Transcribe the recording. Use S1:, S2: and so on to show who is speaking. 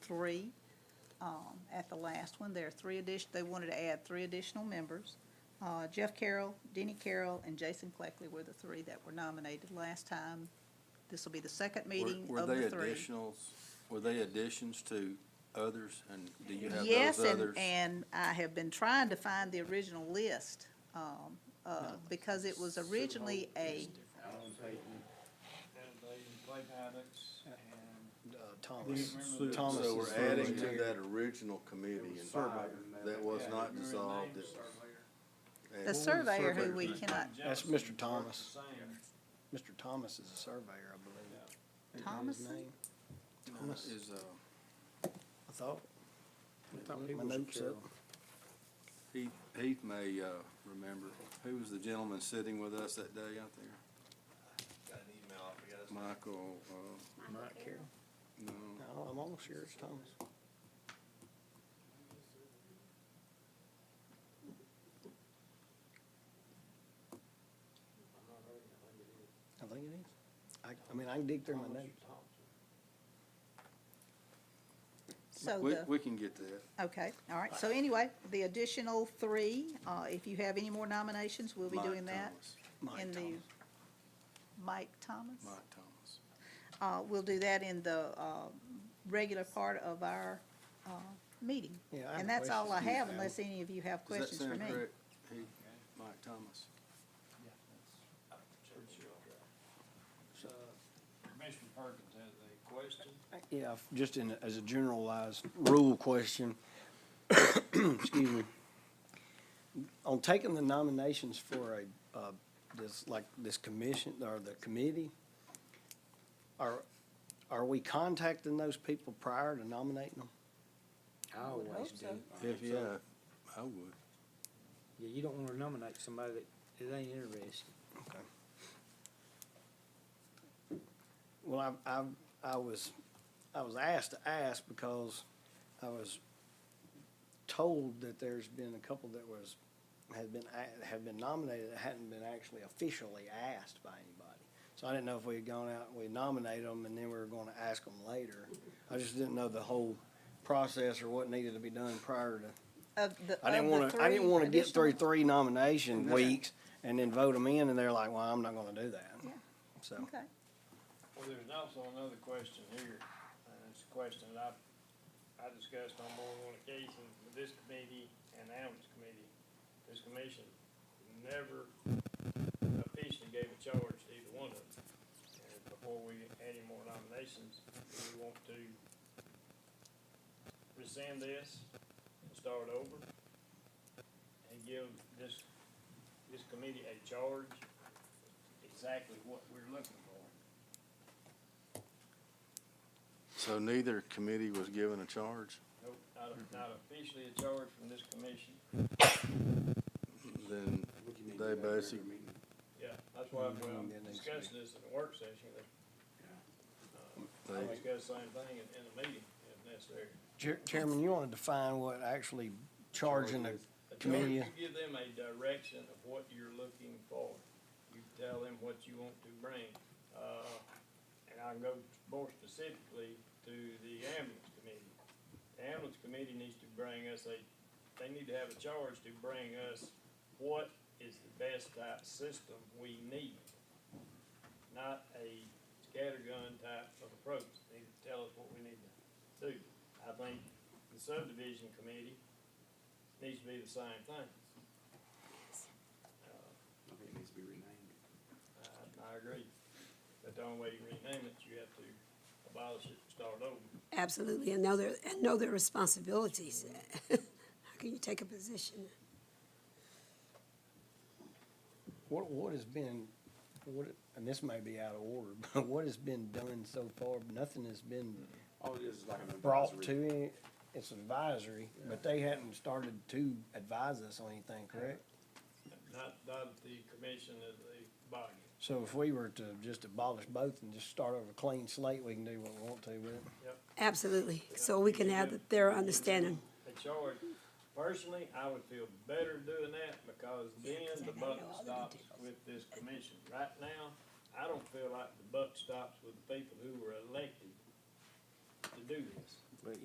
S1: three um, at the last one. There are three addition, they wanted to add three additional members. Uh, Jeff Carroll, Denny Carroll, and Jason Cleckley were the three that were nominated last time. This will be the second
S2: Were-
S1: meeting of the
S2: Were they
S1: three.
S2: additionals, were they additions to others, and do you have
S1: Yes,
S2: those
S1: and,
S2: others?
S1: and I have been trying to find the original list, um, uh, because it was originally a,
S3: Alan Payton, David Clay Maddox, and
S4: Uh,
S3: Didn't
S4: Thomas,
S3: remember that.
S4: Thomas
S2: So
S4: is
S2: we're
S4: still
S2: adding
S4: there.
S2: to that original committee,
S3: it was
S2: and
S3: five.
S2: that was not dissolved. It
S1: the surveyor who we cannot,
S4: That's Mr. Thomas.
S3: Same.
S4: Mr. Thomas is a surveyor, I believe. Isn't that his
S1: Thomason?
S4: name? Thomas,
S2: Is, uh,
S4: I thought. My notes up.
S2: Heath, Heath may, uh, remember, who was the gentleman sitting with us that day out there? Michael, uh,
S4: Mike Carroll.
S2: no,
S4: No, I'm almost sure it's Thomas. I think it is. I, I mean, I can dig through my notes.
S1: so
S2: we,
S1: Oh, the.
S2: we can get that.
S1: Okay, all right, so anyway, the additional three, uh, if you have any more nominations, we'll be
S2: Mike
S1: doing that.
S2: Thomas,
S4: Mike
S1: in the
S4: Thomas.
S1: Mike Thomas?
S2: Mike Thomas.
S1: Uh, we'll do that in the, uh, regular part of our, uh, meeting.
S4: Yeah, I have
S1: And
S4: a
S1: that's all I
S4: question.
S1: have unless any of you have
S2: Does that
S1: questions for
S2: sound
S1: me.
S2: correct, Heath? Mike Thomas?
S4: So,
S3: Commissioner Perkins has a question.
S4: Yeah, f- just in, a- as a generalized rule question, excuse me. On taking the nominations for a, uh, this, like, this commission, or the committee, are, are we contacting those people prior to nominating them?
S5: I always do.
S1: so.
S2: If, yeah, I would.
S5: Yeah, you don't wanna nominate somebody that, that ain't interested.
S4: Okay. Well, I, I, I was, I was asked to ask because I was told that there's been a couple that was, had been, a- had been nominated that hadn't been actually officially asked by anybody. So I didn't know if we had gone out and we nominated them and then we were gonna ask them later. I just didn't know the whole process or what needed to be done prior to
S1: Of the,
S4: I didn't
S1: of
S4: want
S1: the
S4: to, I didn't
S1: three
S4: want to get through
S1: additional-
S4: three nomination weeks and then vote them in and they're like, well, I'm not going to do that.
S1: Yeah.
S4: So,
S1: Okay,
S3: Well, there's also another question here, and it's a question that I, I discussed on more than one occasion with this committee and Adams Committee. This commission never officially gave a charge to either one of them. And before we had any more nominations, do we want to rescind this and start over? And give this, this committee a charge, exactly what we're looking for?
S2: So neither committee was given a charge?
S3: Nope, not, not officially a charge from this commission.
S2: Then they basically,
S3: Yeah, that's why
S4: Mhm.
S3: I'm
S4: Yeah, next
S3: discussing this in the work session, but I
S2: they,
S3: discuss the same thing in, in the meeting if necessary.
S4: Chair- Chairman, you want to define what actually charging the,
S3: A charge,
S4: Committee.
S3: You give them a direction of what you're looking for. You tell them what you want to bring. Uh, and I can go more specifically to the ambulance committee. The ambulance committee needs to bring us a, they need to have a charge to bring us what is the best type system we need. Not a scattergun type of approach. They need to tell us what we need to do. I think the subdivision committee needs to be the same thing.
S6: I think it needs to be renamed.
S3: I, I agree. But the only way you rename it, you have to abolish it, and start over.
S7: Absolutely, and know their, and know their responsibilities. How can you take a position?
S4: what, what has been, what, and this may be out of order, but what has been done so far? Nothing has been
S5: Oh,
S6: All it is is like an advisory.
S4: brought to, any- it's advisory, but they hadn't started to advise us on anything, correct?
S3: Not, not the commission of the body.
S4: So if we were to just abolish both and just start over a clean slate, we can do what we want to with it.
S7: Absolutely, so we can have their understanding.
S3: A charge, personally, I would feel better doing that because then the buck stops with this commission. Right now, I don't feel like the buck stops with the people who were elected to do this.